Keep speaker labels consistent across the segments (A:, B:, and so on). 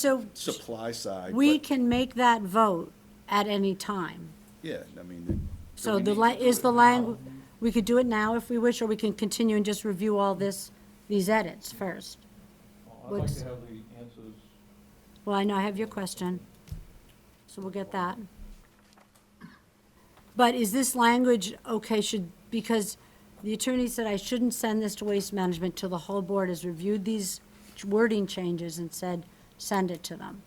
A: So
B: supply side.
A: we
B: but-
A: can make that vote at any time.
B: Yeah, I mean.
A: So the, la- is the language, we could do it now if we wish, or we can continue and just review all this, these edits first.
C: I'd like
A: What's-
C: to have the answers.
A: Well, I know I have your question, so we'll get that. But is this language okay, should, because the attorney said I shouldn't send this to Waste Management till the whole board has reviewed these wording changes and said, send it to them.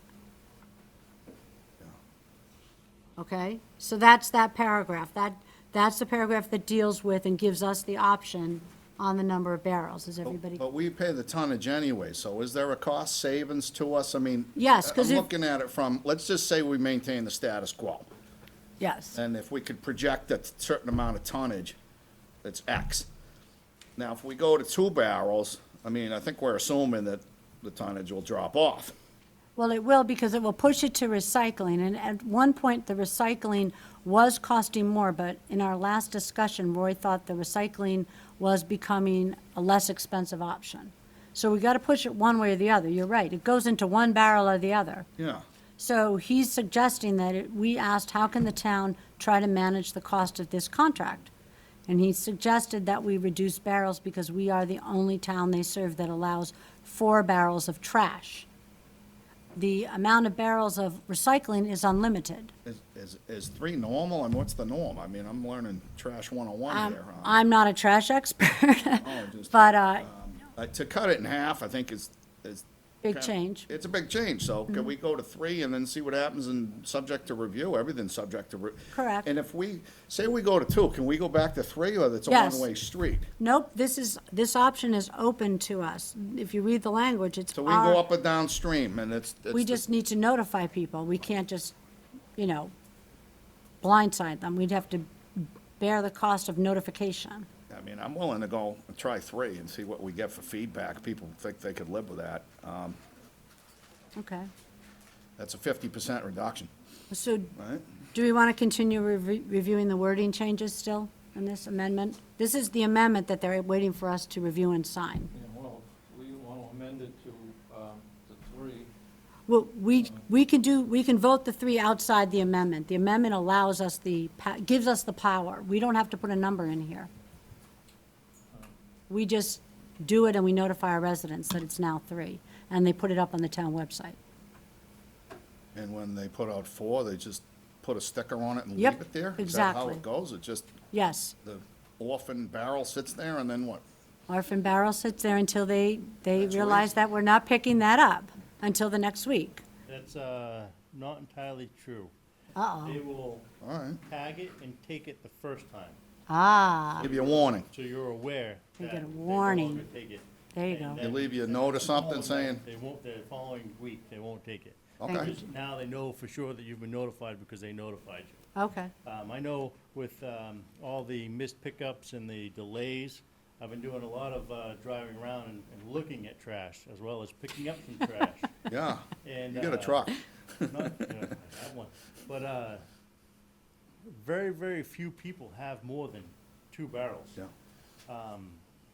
A: Okay, so that's that paragraph, that, that's the paragraph that deals with and gives us the option on the number of barrels, is everybody?
B: But we pay the tonnage anyway, so is there a cost savings to us? I mean.
A: Yes, 'cause
B: I'm
A: if-
B: looking at it from, let's just say we maintain the status quo.
A: Yes.
B: And if we could project a certain amount of tonnage, that's X. Now, if we go to two barrels, I mean, I think we're assuming that the tonnage will drop off.
A: Well, it will, because it will push it to recycling, and at one point, the recycling was costing more, but in our last discussion, Roy thought the recycling was becoming a less expensive option. So we gotta push it one way or the other, you're right, it goes into one barrel or the other.
B: Yeah.
A: So he's suggesting that it, we asked, how can the town try to manage the cost of this contract? And he suggested that we reduce barrels because we are the only town they serve that allows four barrels of trash. The amount of barrels of recycling is unlimited.
B: Is, is, is three normal? And what's the norm? I mean, I'm learning trash one-on-one
A: Um,
B: here. huh?
A: I'm not a trash expert,
B: Oh, just-
A: but, uh,
B: Uh, To cut it in half, I think is, is.
A: Big
B: kinda-
A: change. Mm-hmm.
B: It's a big change, so can we go to three and then see what happens and subject to review, everything's subject to. re-
A: Correct.
B: And if we, say we go to two, can we go back to three or that's a
A: Yes.
B: one-way street?
A: nope, this is, this option is open to us. If you read the language, it's
B: So we can go
A: our-
B: up and downstream and it's. it's
A: We
B: the-
A: just need to notify people. We can't just, you know, blindside them. We'd have to bear the cost of notification.
B: I mean, I'm willing to go and try three and see what we get for feedback, people think they could live with that, um,
A: Okay.
B: that's a fifty percent reduction,
A: So
B: right?
A: do we want to continue revi- reviewing the wording changes still in this amendment? This is the amendment that they're waiting for us to review and sign.
C: Yeah, well, we want to amend it to, um, to three.
A: Well, we, we can do, we can vote the three outside the amendment. The amendment allows us the, pa- gives us the power. We don't have to put a number in here. We just do it and we notify our residents that it's now three, and they put it up on the town website.
B: And when they put out four, they just put a sticker on it and leave
A: Yep,
B: it there? Is that how
A: exactly.
B: it goes? It just,
A: Yes,
B: the orphan barrel sits there and then what?
A: orphan barrel sits there until they, they
B: That's
A: realize
B: right.
A: that we're not picking that up until the next week.
D: That's uh, not entirely true.
A: Uh-oh,
D: They will
B: All right.
D: tag it and take it the first time,
A: ah,
B: Give you a warning.
D: so you're aware
A: They
D: that
A: get a
D: they no
A: warning.
D: longer take it.
A: there you
D: And
A: go.
B: They
D: then
B: leave you a note or something saying,
D: They won't, the following week, they won't take it.
B: Okay.
A: Thank you.
D: Because Now they know for sure that you've been notified because they notified you.
A: Okay,
D: Um, I know with, um, all the missed pickups and the delays, I've been doing a lot of, uh, driving around and, and looking at trash as well as picking up some trash.
B: yeah,
D: And,
B: you got a
D: uh,
B: truck.
D: Not, you know, that one. But uh, very, very few people have more than two barrels.
B: Yeah.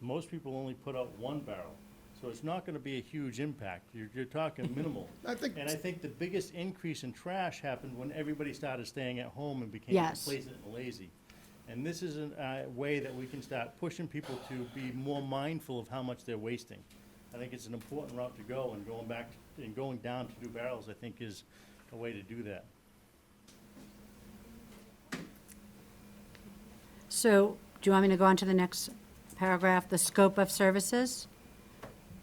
D: Most people only put out one barrel, so it's not going to be a huge impact. You're, you're talking minimal.
B: I think-
D: And I think the biggest increase in trash happened when everybody started staying at home and became
A: Yes.
D: complacent and lazy. And this is a way that we can start pushing people to be more mindful of how much they're wasting. I think it's an important route to go, and going back, and going down to two barrels, I think, is a way to do that.
A: so do you want me to go on to the next paragraph, the scope of services?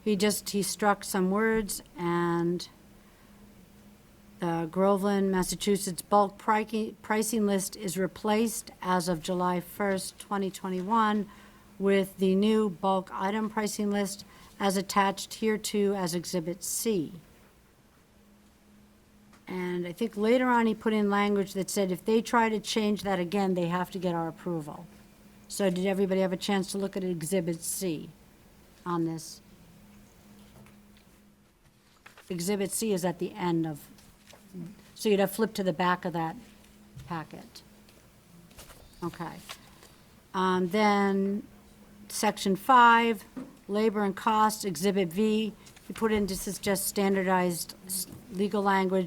A: He just, he struck some words and the Groveland, Massachusetts bulk pricing, pricing list is replaced as of July 1st, 2021 with the new bulk item pricing list as attached hereto as Exhibit C. And I think later on, he put in language that said if they try to change that again, they have to get our approval. So did everybody have a chance to look at Exhibit C on this? Exhibit C is at the end of, so you'd have flipped to the back of that packet. Okay. Um, Then, Section 5, Labor and Costs, Exhibit V, you put in, this is just standardized s- legal language